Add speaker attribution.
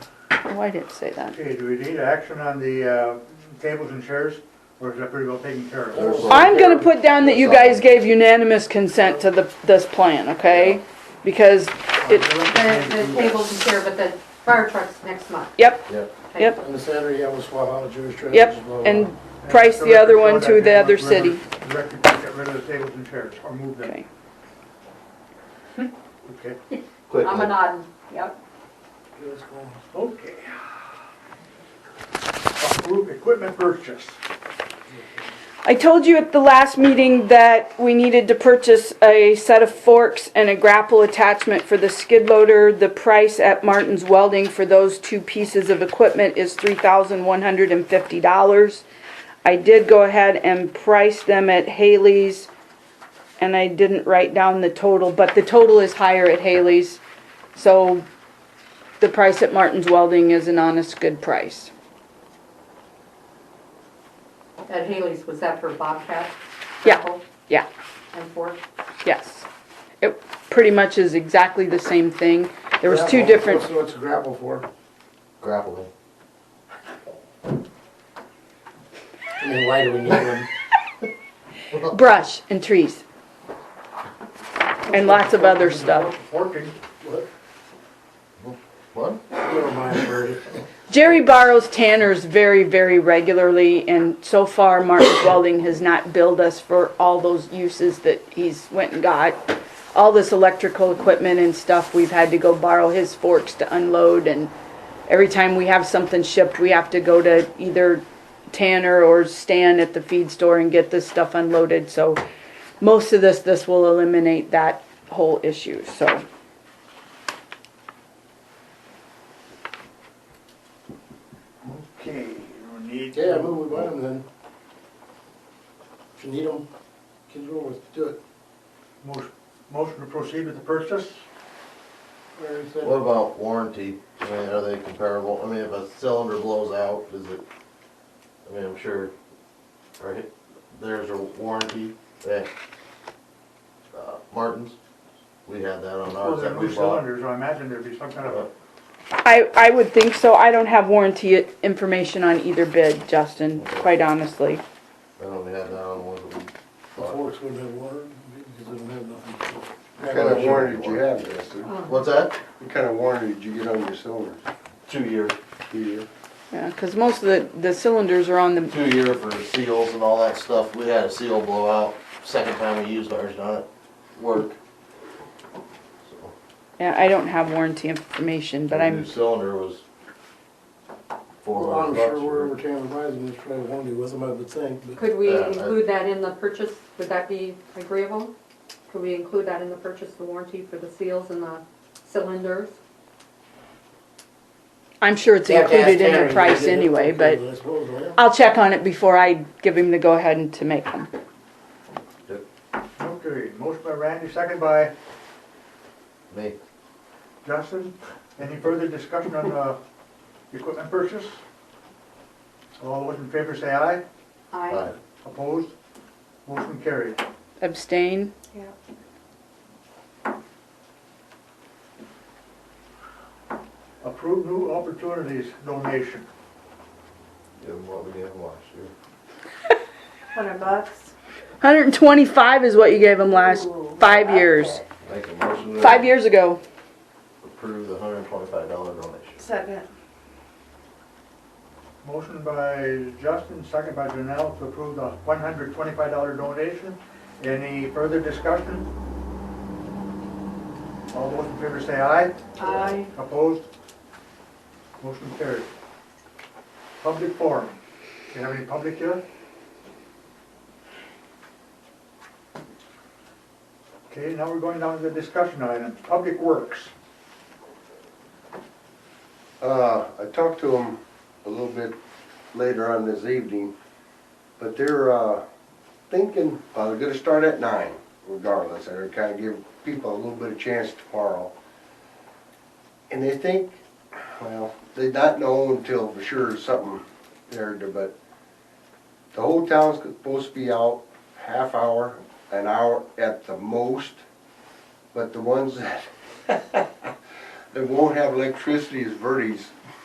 Speaker 1: Oh, I didn't say that.
Speaker 2: Okay, do we need action on the uh, tables and chairs, or is that pretty well taken care of?
Speaker 1: I'm gonna put down that you guys gave unanimous consent to the, this plan, okay? Because it,
Speaker 3: The, the tables and chair, but the fire truck's next month.
Speaker 1: yep,
Speaker 4: Yep.
Speaker 1: yep,
Speaker 5: On the Saturday, I will swap out a Jewish trash.
Speaker 1: yep, and price the other one to the other city.
Speaker 2: The record shows get rid of the tables and chairs, or move them.
Speaker 1: Okay,
Speaker 2: Okay.
Speaker 4: Quick,
Speaker 3: I'm a nod, yep.
Speaker 2: Okay. Approve equipment purchase.
Speaker 1: I told you at the last meeting that we needed to purchase a set of forks and a grapple attachment for the skid loader. The price at Martin's Welding for those two pieces of equipment is three thousand one hundred and fifty dollars. I did go ahead and price them at Haley's, and I didn't write down the total, but the total is higher at Haley's. So the price at Martin's Welding is an honest, good price.
Speaker 3: At Haley's, was that for Bobcat?
Speaker 1: Yeah.
Speaker 3: Apple,
Speaker 1: Yeah.
Speaker 3: And Ford?
Speaker 1: Yes. It pretty much is exactly the same thing. There was two different,
Speaker 5: So it's gravel for,
Speaker 4: grappling.
Speaker 5: I mean, why do we need one?
Speaker 1: brush and trees. And lots of other stuff.
Speaker 2: Working.
Speaker 5: What?
Speaker 4: What?
Speaker 5: Never mind, Bertie.
Speaker 1: Jerry borrows tanners very, very regularly and so far Martin's Welding has not billed us for all those uses that he's went and got. All this electrical equipment and stuff, we've had to go borrow his forks to unload and every time we have something shipped, we have to go to either Tanner or Stan at the feed store and get this stuff unloaded, so most of this, this will eliminate that whole issue, so.
Speaker 2: Okay, we need.
Speaker 5: Yeah, I move we buy them then. If you need them, get it over with, do it.
Speaker 2: Motion- Motion to proceed with the purchase?
Speaker 5: Larry said-
Speaker 4: What about warranty? I mean, are they comparable? I mean, if a cylinder blows out, is it, I mean, I'm sure, right, there's a warranty at uh, Martin's. We had that on
Speaker 2: Well,
Speaker 4: ours
Speaker 2: they're
Speaker 4: that we
Speaker 2: new
Speaker 4: bought.
Speaker 2: cylinders, I imagine there'd be some kind of a.
Speaker 1: I, I would think so. I don't have warranty information on either bid, Justin, quite honestly.
Speaker 4: I know we had that on the ones that we
Speaker 5: The forks would have water, because they don't have nothing.
Speaker 6: What kind of warranty did you have, Justin?
Speaker 3: Um,
Speaker 4: What's that?
Speaker 6: What kind of warranty did you get on your cylinder?
Speaker 4: Two year.
Speaker 6: Two-year.
Speaker 1: Yeah, because most of the, the cylinders are on the,
Speaker 4: Two year for seals and all that stuff. We had a seal blow out, second time we used ours, not work. So.
Speaker 1: yeah, I don't have warranty information, but
Speaker 4: The
Speaker 1: I'm,
Speaker 4: New cylinder was four
Speaker 5: Well, I'm
Speaker 4: hundred bucks.
Speaker 5: sure wherever Tanner buys them, there's probably warranty with them, I would think, but.
Speaker 3: Could we
Speaker 4: Yeah, I-
Speaker 3: include that in the purchase? Would that be agreeable? Could we include that in the purchase, the warranty for the seals and the cylinders?
Speaker 1: I'm sure it's included in the price anyway, but
Speaker 5: I suppose, yeah.
Speaker 1: I'll check on it before I give him the go-ahead and to make them.
Speaker 2: Okay, motion by Randy, second by
Speaker 4: Me,
Speaker 2: Justin. Any further discussion on uh, equipment purchase? All those in favor say aye.
Speaker 4: aye.
Speaker 2: Opposed? Motion carried.
Speaker 1: Abstain?
Speaker 3: Yeah.
Speaker 2: Approve new opportunities donation.
Speaker 4: Give 'em what we gave 'em last year.
Speaker 3: Hundred bucks.
Speaker 1: Hundred and twenty-five is what you gave him last, five years,
Speaker 4: Make a motion to.
Speaker 1: five years ago.
Speaker 4: Approve the hundred and twenty-five dollar donation.
Speaker 7: Second.
Speaker 2: Motion by Justin, second by Janelle to approve the one hundred twenty-five dollar donation. Any further discussion? All those in favor say aye.
Speaker 3: Aye.
Speaker 2: Opposed? Motion carried. Public forum. Do you have any public here? Okay, now we're going down to the discussion items. Public Works.
Speaker 6: Uh, I talked to them a little bit later on this evening, but they're, uh, thinking, uh, they're gonna start at nine regardless, and they're kinda give people a little bit of chance tomorrow. And they think, well, they not know until for sure something there, but the whole town's supposed to be out half hour, an hour at the most, but the ones that that won't have electricity is Verdi's